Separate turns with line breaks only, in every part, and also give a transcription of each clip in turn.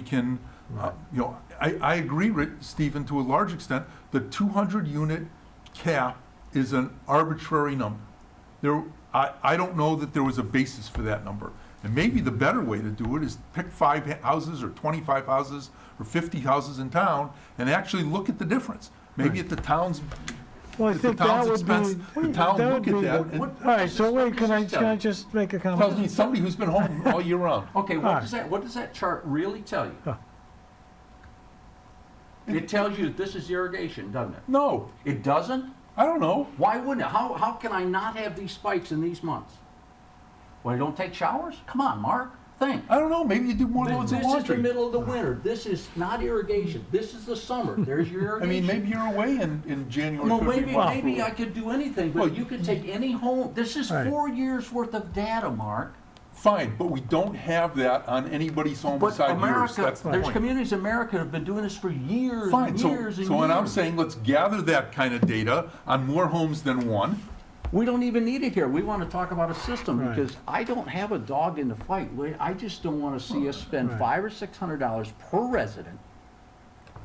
we can, uh, you know, I, I agree, Rick, Stephen, to a large extent, the 200-unit cap is an arbitrary number. There, I, I don't know that there was a basis for that number. And maybe the better way to do it is pick five houses, or 25 houses, or 50 houses in town, and actually look at the difference. Maybe at the town's,
Well, I
at the
think that
town's
would
expense,
be.
the town
that
look
would
at
be-
that. and-
All right, so wait, can I, can I just make a
Tells me
comment?
somebody who's been home all year round.
Okay,
Alright.
what does that, what does that chart really tell
Huh.
you? It tells you this is irrigation, doesn't it?
No,
It doesn't?
I don't know.
Why wouldn't it? How, how can I not have these spikes in these months? Well, I don't take showers? Come on, Mark, think.
I don't know, maybe you do more loads of
This is the
laundry.
middle of the winter. This is not irrigation. This is the summer. There's your
I mean,
irrigation.
maybe you're away in, in January,
Well,
February.
maybe,
March.
maybe I could do anything,
Well,
but you could take any home. This is
Right.
four years' worth of data, Mark.
Fine, but we don't have that on anybody's home
But
beside yours,
America,
that's the
there's
point.
communities in America that have been doing this for years
Fine,
and
so,
years and
so when I'm
years.
saying, let's gather that kind of data on more homes than one,
We don't even need it here. We want to talk about a system
Right.
because I don't have a dog in the fight. We- I just don't want to see us spend
Right.
five or six hundred dollars per resident.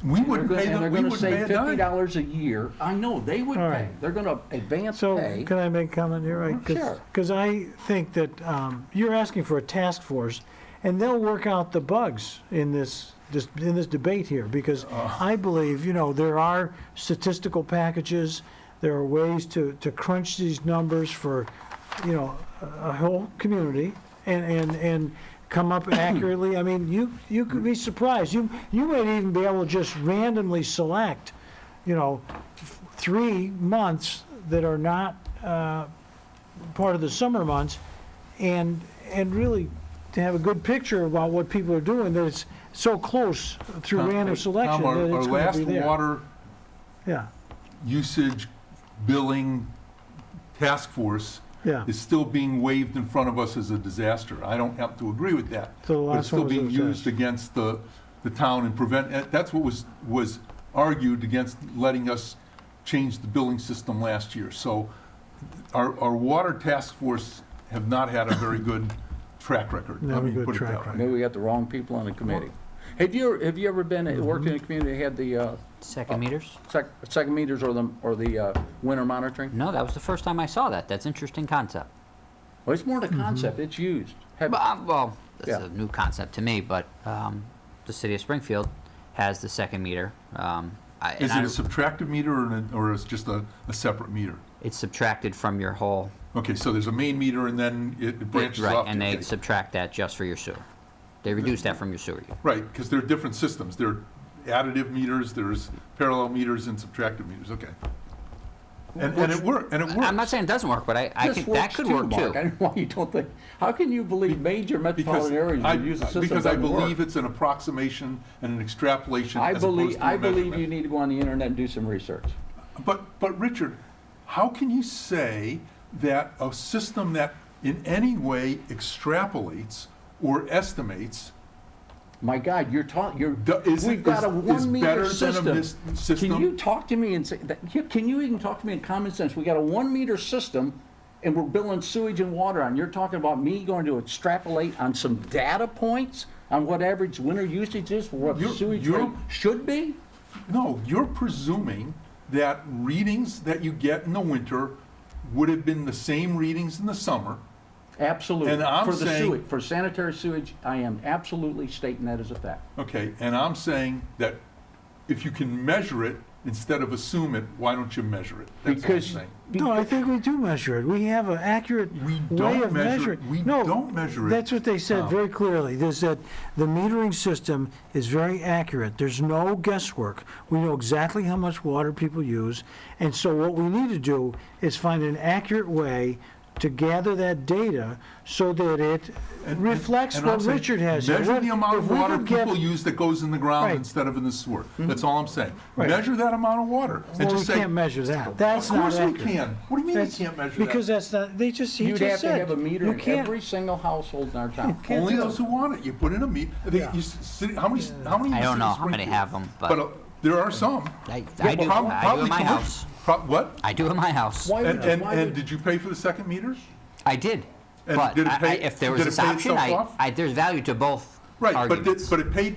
we
And they're
wouldn't
gonna-
pay
and they're
them, we
gonna
wouldn't pay
save
a
fifty
dime.
dollars a year. I know, they would
All
pay.
right.
They're gonna advance
So,
pay.
can I make a comment here? Right, 'cause-
Sure.
Cause I think that, um, you're asking for a task force and they'll work out the bugs in this, this, in this debate here. Because I believe, you know, there are statistical packages, there are ways to, to crunch these numbers for, you know, a a whole community and, and, and come up accurately. I mean, you, you could be surprised. You, you might even be able to just randomly select, you know, f- three months that are not uh, part of the summer months and, and really to have a good picture about what people are doing, that it's so close through
Tom,
random
Tom,
selection
our-
that
Our
it's going
last
to be there.
water
Yeah,
usage billing task force
yeah.
is still being waved in front of us as a disaster. I don't have to agree with that. But
So the
it's
last
still
one was a
being used
disaster.
against the, the town and prevent, and that's what was, was argued against letting us change the billing system last year. So our, our water task force have not had a very good track record.
Not
Let
a
me
good
put it
track
that way.
Maybe we got the wrong people on the committee. Have you, have you ever been,
Mm-hmm.
worked in a community that had the, uh,
Oh.
Second meters?
sec, second meters or the, or the, uh, winter
Mm-hmm.
monitoring?
No, that was the first time I saw that. That's interesting concept.
Well, it's more the
Mm-hmm.
concept. It's used. Have-
But, uh, well, that's
Yeah.
a new concept to me, but um, the city of Springfield has the second meter. Um, I, and
Is it
I-
a subtractive meter or, an- or is it just a, a separate meter?
it's subtracted from your whole
Okay, so there's a main meter and then it- it branches
right,
off. Hmm.
and
to-
they subtract that just for your sewer. They reduce that from your sewer. use.
Right, because there are different systems. There are additive meters, there's parallel meters and subtractive meters, okay. And, and it worked, and it worked.
I'm not saying it doesn't work, but I, I
This
think that
works
could
too,
work
Mark. I
too.
don't know why you don't think. How can you believe major
Because
metropolitan areas
I-
would use a system
Because I
that doesn't
believe
work?
it's an approximation and an extrapolation
I
as opposed
believe,
to
I
a
believe you
measurement.
need to go on the internet and do some research.
But, but Richard, how can you say that a system that in any way extrapolates or estimates
My God, you're talking, you're,
do- is,
we've got a
is- is
one meter
better than a
system.
mis-
Can you
system?
talk to me and say, that- you- can you even talk to me in common sense? We got a one meter system and we're billing sewage and water on. You're talking about me going to extrapolate on some data points on what average winter usage is for what
You're-
sewage
you're-
rate should be?
No, you're presuming that readings that you get in the winter would have been the same readings in the summer.
Absolutely.
And I'm
For the
saying-
sewage- For sanitary sewage, I am absolutely stating that as a fact.
Okay, and I'm saying that if you can measure it instead of assume it, why don't you measure it? That's what I'm
Because,
saying.
No, I think we do measure it. We have an accurate
We
way
don't
of
measure it.
measuring.
We
No,
don't measure it. Oh.
That's what they said very clearly, is that the metering system is very accurate. There's no guesswork. We know exactly how much water people use. And so what we need to do is find an accurate way to gather that data so that it
And-
reflects
and I'm
what
saying,
Richard has. here.
Measure
What-
the amount
if
of
we
water
could get-
people use that goes in the ground
Right. Mm-hmm.
instead of in the sewer. That's all I'm saying.
Right.
Measure that amount of water and
Well, we
just say,
can't
of
measure that. That's not
course
accurate.
we can. What do you mean you
That's-
can't measure that?
Because that's not, they just, he
You'd have
just
to
said.
have a meter
you
in
can't-
every single household in our town.
can't
Only
do
those who want it. You put in a meet, they,
Yeah.
you, s- city, how many, how many? in
I
the
don't
city
know
of
how many
Springfield?
have 'em, but-
uh, there are some.
I,
Yeah,
I do,
prob-
I do
probably
at my
commercial-
house.
prob- What?
I do at my house.
Why
And,
would,
and,
why
and
would,
did you pay for the second meter?
I did.
And
But
did it
I- I-
pay-
if there
did
was
it
this
pay
option,
itself
I,
off?
I, there's value to both
Right, but it,
arguments.
but it paid